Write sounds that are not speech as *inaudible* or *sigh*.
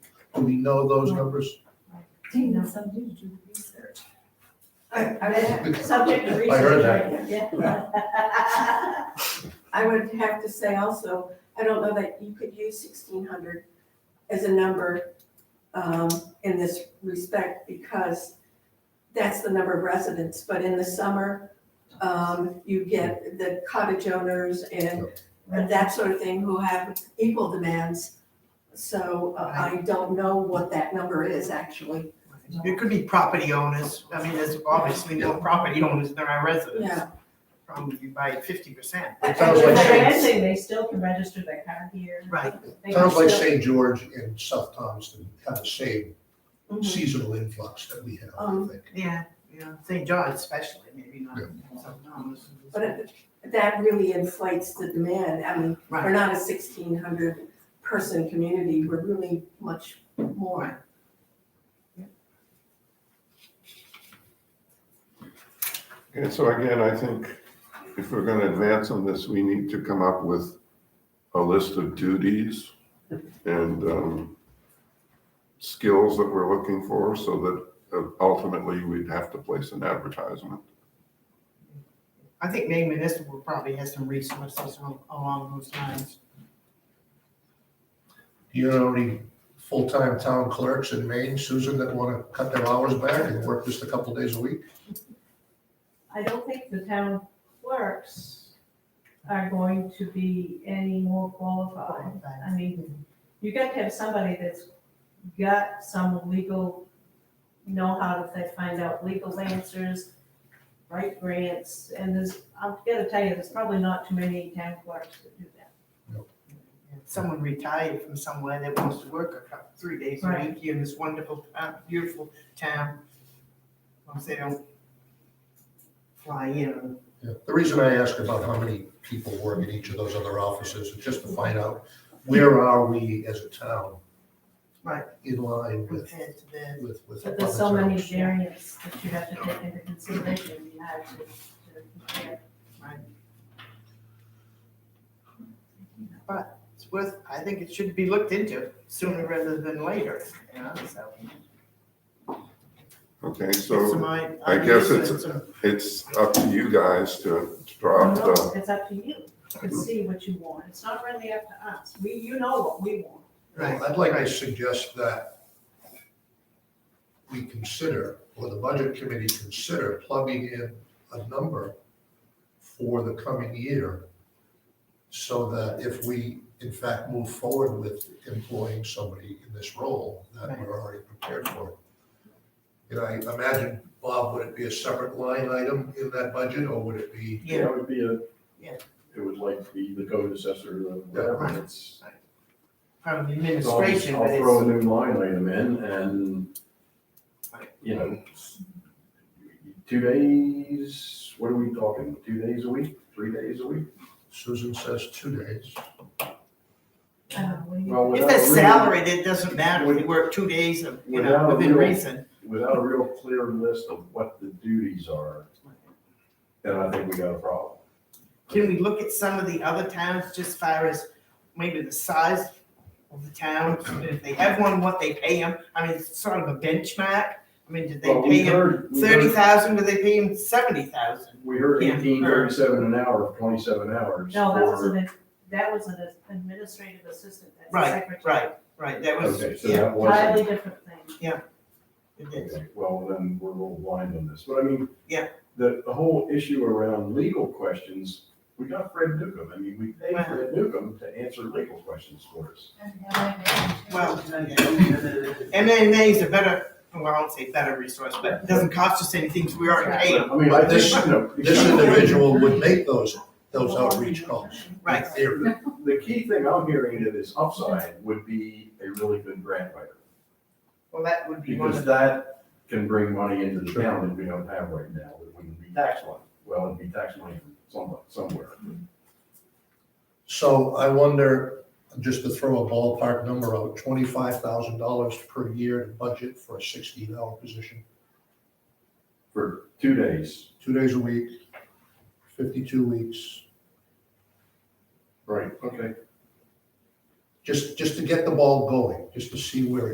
Do we know those numbers? Tina, somebody do the research. I- I would- Subject to *laughs* research. I heard that. I would have to say also, I don't know that you could use sixteen hundred as a number um, in this respect because that's the number of residents, but in the summer, um, you get the cottage owners and that sort of thing who have equal demands. So uh, I don't know what that number is actually, It could be property owners, I mean, there's obviously no property owners, there are residents, yeah. probably by fifty percent. It sounds like If they're St. renting, they still can register their car here. Right. They Sounds like still- St. George and South Thompson have the same Mm-hmm. Mm-hmm. Mhm. seasonal influx that we have, I Um, think. Yeah, yeah, St. John especially, maybe not, so, no. But it- that really inflates the demand. I mean, we're Right, not a sixteen hundred person community, we're really much more. And so again, I think if we're gonna advance on this, we need to come up with a list of duties and, um, skills that we're looking for so that uh, ultimately we'd have to place an advertisement. I think Maine Municipal probably has some resources al- along those lines. Do you know any full-time town clerks in Maine, Susan, that want to cut their hours back and work just a couple days a week? I don't think the town clerks are going to be any more Oh. qualified. uh, I mean, you got to have somebody that's got some legal, know-how to fi- find out legal answers, write grants, and there's, I've got to tell you, there's probably not too many town clerks that do that. If Someone retired from somewhere that wants to work a couple, three days a Right. week here in this wonderful, uh, beautiful town. Once they don't fly in. Yeah. The reason I ask about how many people work in each of those other offices is just to find out where are we as a town? Right. In line with, compared to the with, with. But there's so many other towns. variants that you have to take into consideration, you have to, to compare. It's worth, I think it should be looked into sooner rather than later, you know, so. Okay, It's so my- I guess mean, it's- a- it's up to you guys to to draw up No, the, It's up to you to see what you want. It's not really up to us. We, you know what we want. Well, I'd like to suggest that we consider, or the budget committee consider plugging in a number for the coming year so that if we in fact move forward with employing somebody in this role, that we're already prepared for. it. And I imagine, Bob, would it be a separate line item in that budget or would it be? Yeah, That would be a, Yeah. it would like be the code assessor, or Right. whatever, it's. from the I'll just- administration, I'll but throw a it's, new line item in and, you know, two days, what are we talking, two days a week, three days a week? Susan says two days. I don't know, what do you- Well, if without they're really- salaried, it doesn't matter. If you work two days of, you know, Without a within real- reason. Without a real clear list of what the duties are, then I think we got a problem. Can we look at some of the other towns just far as maybe the size of the town? If they have one, what they pay them? I mean, it's sort of a benchmark. I mean, did they Well, we pay them heard- we heard- thirty thousand? Do they pay them seventy thousand? We heard Yeah. eighteen thirty-seven an hour, twenty-seven hours. No, that for- was an, that was an administrative assistant. That's a Right, secretary. Right, right, that was, Okay, so yeah. that wasn't. Entirely different thing. it is. Okay, Well, then we're a little blind on this, but I mean. Yeah. The, the whole issue around legal questions, we got Fred Newcomb, I mean, we paid Right. Fred Newcomb to answer legal questions for us. Well, MMA is a better, well, I won't say better resource, but it doesn't cost us anything, so we already pay But, them. I mean, I This- think, you know. the This key- individual would make those, those outreach calls. in Right. theory. The key thing I'm hearing to this upside would be a really good grant writer, Well, that would be one because of that can bring money into the town that we don't have right now, that wouldn't be tax money. Well, it'd be tax money from some- somewhere. So I wonder, just to throw a ballpark number out, twenty-five thousand dollars per year to budget for a sixteen-hour position, For two days. two days a week, fifty-two weeks, Right. Okay. just, just to get the ball going, just to see where it